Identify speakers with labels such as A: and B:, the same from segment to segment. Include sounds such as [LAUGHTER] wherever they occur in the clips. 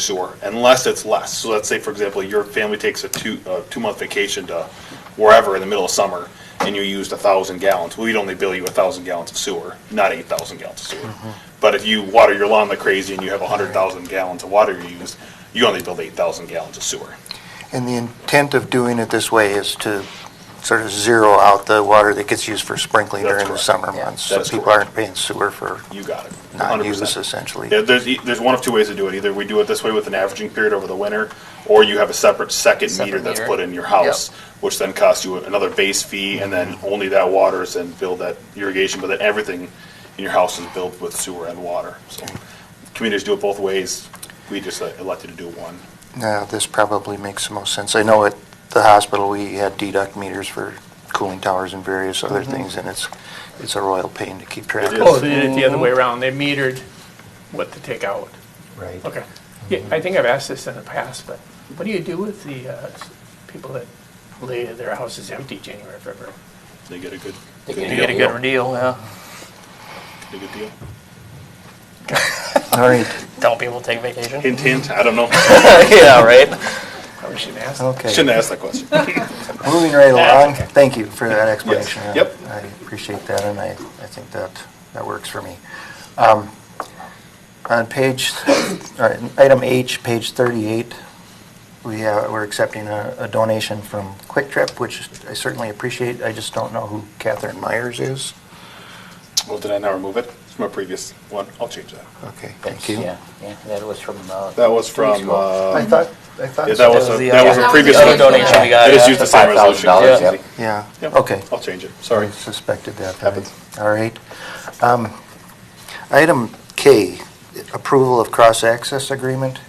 A: sewer, unless it's less. So let's say, for example, your family takes a two, a two-month vacation to wherever in the middle of summer, and you used a thousand gallons, we'd only bill you a thousand gallons of sewer, not eight thousand gallons of sewer. But if you water your lawn like crazy and you have a hundred thousand gallons of water you use, you only bill eight thousand gallons of sewer.
B: And the intent of doing it this way is to sort of zero out the water that gets used for sprinkling
A: That's
B: during the
A: correct.
B: summer months. So
A: That's
B: people
A: correct.
B: aren't paying sewer for
A: You got it.
B: non-use
A: 100%.
B: essentially.
A: There- There's, e- there's one of two ways to do it. Either we do it this way with an averaging period over the winter, or you have a separate second
C: Separate
A: meter that's
C: meter.
A: put in your house, which then costs you another base fee, and then
C: Mm-hmm.
A: only that water is then billed that irrigation, but then everything in your house is billed with sewer and water. So communities do it both ways. We just uh, elected to do one.
B: Now, this probably makes the most sense. I know at the hospital, we had deduct meters for cooling towers and various other
A: Mm-hmm.
B: things, and it's, it's a royal pain to keep track
A: It
B: of.
A: is.
D: Oh, they did it the other way around. They metered what to take out.
E: Right.
D: Okay. Yeah, I think I've asked this in the past, but what do you do with the uh, s- people that lay their houses empty January, February?
A: They get a good,
C: They
A: good
C: can
A: deal.
C: get a good deal, yeah.
A: They get a good deal. [LAUGHS]
B: All right,
C: Tell people to take vacation.
A: Hint, hint, I don't
C: [LAUGHS]
A: know.
C: Yeah, right?
D: Probably shouldn't ask.
B: okay.
A: Shouldn't ask that question.
B: Moving right along.
D: okay.
B: Thank you for that explanation.
A: Yes. Yep.
B: I appreciate that, and I, I think that, that works for me. Um, On page, all right, item H, page 38, we, uh, we're accepting a a donation from Quick Trip, which I certainly appreciate. I just don't know who Catherine Myers is.
A: Well, did I now remove it? It's my previous one. I'll change that.
B: Okay, thank you.
C: Yeah, yeah, that was from, uh.
A: That was from,
C: preschool.
B: I
A: uh,
B: thought, I thought.
A: yeah, that was,
C: That was
A: a-
C: the
A: that
C: other-
A: was
F: That
A: a
F: was
A: previous.
F: the
A: one.
F: other donation we
A: I
C: got,
A: just
C: yeah.
A: used the same resolution.
C: $5,000,
A: Easy.
B: Yeah,
A: Yep.
B: okay.
A: I'll change it, sorry.
B: I suspected that.
A: Happens.
B: All right. Um, Item K, approval of cross-access agreement.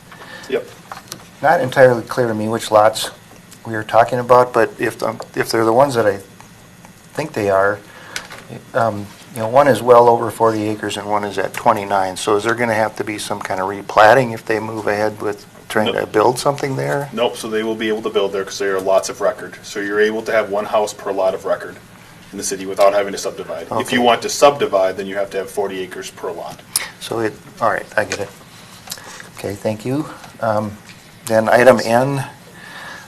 A: Yep.
B: Not entirely clear to me which lots we are talking about, but if, um, if they're the ones that I think they are, um, you know, one is well over 40 acres and one is at 29, so is there going to have to be some kind of replatting if they move ahead with trying to
A: Nope.
B: build something there?
A: Nope, so they will be able to build there because there are lots of record. So you're able to have one house per lot of record in the city without having to subdivide. If
B: Okay.
A: you want to subdivide, then you have to have 40 acres per lot.
B: So it, all right, I get it. Okay, thank you. Um, Then item N,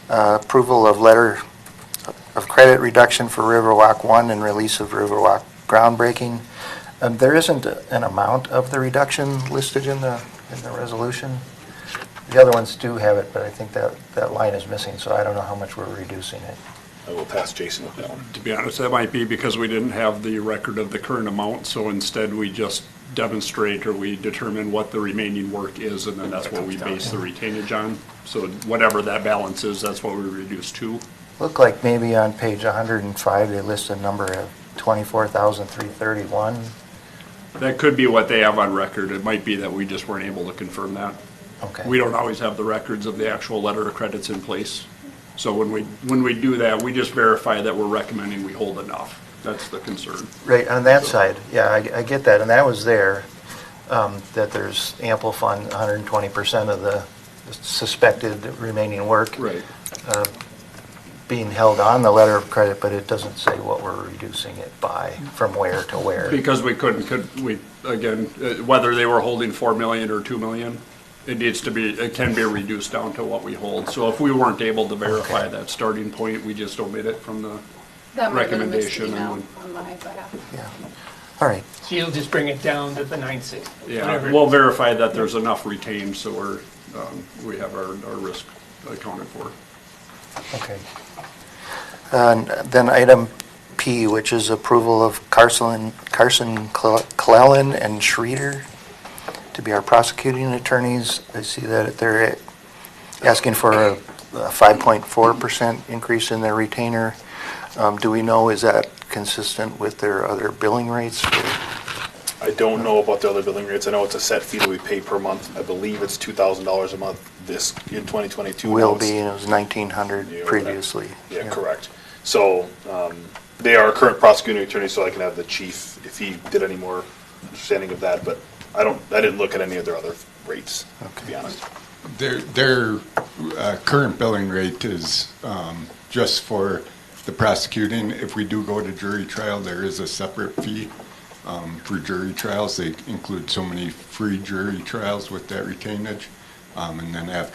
B: uh, approval of letter of credit reduction for Riverwalk 1 and release of Riverwalk groundbreaking. Um, There isn't an amount of the reduction listed in the, in the resolution. The other ones do have it, but I think that, that line is missing, so I don't know how much we're reducing it.
A: I will pass Jason with that one.
G: To be honest, that might be because we didn't have the record of the current amount, so instead we just demonstrate or we determine what the remaining work is, and then that's what we base the retainage on. So whatever that balance is, that's what we reduce to.
B: Looked like maybe on page 105, they list a number of 24,331.
G: That could be what they have on record. It might be that we just weren't able to confirm that.
B: Okay.
G: We don't always have the records of the actual letter of credits in place. So when we, when we do that, we just verify that we're recommending we hold enough. That's the concern.
B: Right, on that side, yeah, I, I get that, and that was there, um, that there's ample fund, hundred and twenty percent of the suspected remaining work being held on the letter of credit, but it doesn't say what we're reducing it by, from where to where.
G: Because we couldn't, could, we, again, uh, whether they were holding four million or two million, it needs to be, it can be reduced down to what we hold. So if we weren't able to verify that starting point, we just omit it from the,
F: That might have been a missed
G: recommendation
F: email
G: and-
F: on my behalf.
B: Yeah. All right,
D: So you'll just bring it down to the 960.
G: yeah,
D: whatever.
G: we'll verify that there's enough retained, so we're, um, we have our, our risk accounted for.
B: okay. And then item P, which is approval of Carson, Carson Cle- Clellan and Schreeder to be our prosecuting attorneys. I see that they're asking for a a 5.4% increase in their retainer. Um, Do we know, is that consistent with their other billing rates?
A: I don't know about the other billing rates. I know it's a set fee that we pay per month. I believe it's $2,000 a month this, in 2022.
B: Will
A: Now it's-
B: be, and it was 1,900
A: Yeah,
B: previously.
A: uh, Yeah, correct. So um, they are current prosecuting attorney, so I can have the chief, if he did any more understanding of that, but I don't, I didn't look at any of their other rates, to be honest.
H: Their, their uh, current billing rate is um, just for the prosecuting. If we do go to jury trial, there is a separate fee um, for jury trials. They include so many free jury trials with that retainage. Um, And then after